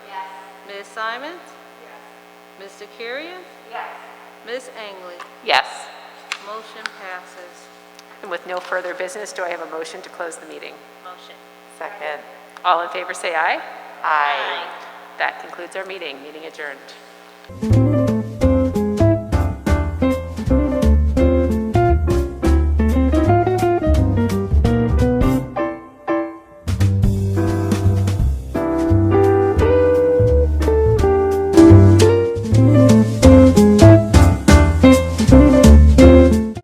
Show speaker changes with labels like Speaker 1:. Speaker 1: Ms. Simons? Yes. Mr. Curian? Yes. Ms. Angley?
Speaker 2: Yes.
Speaker 1: Motion passes.
Speaker 2: And with no further business, do I have a motion to close the meeting?
Speaker 1: Motion.
Speaker 2: Second. All in favor, say aye. Aye. That concludes our meeting. Meeting adjourned.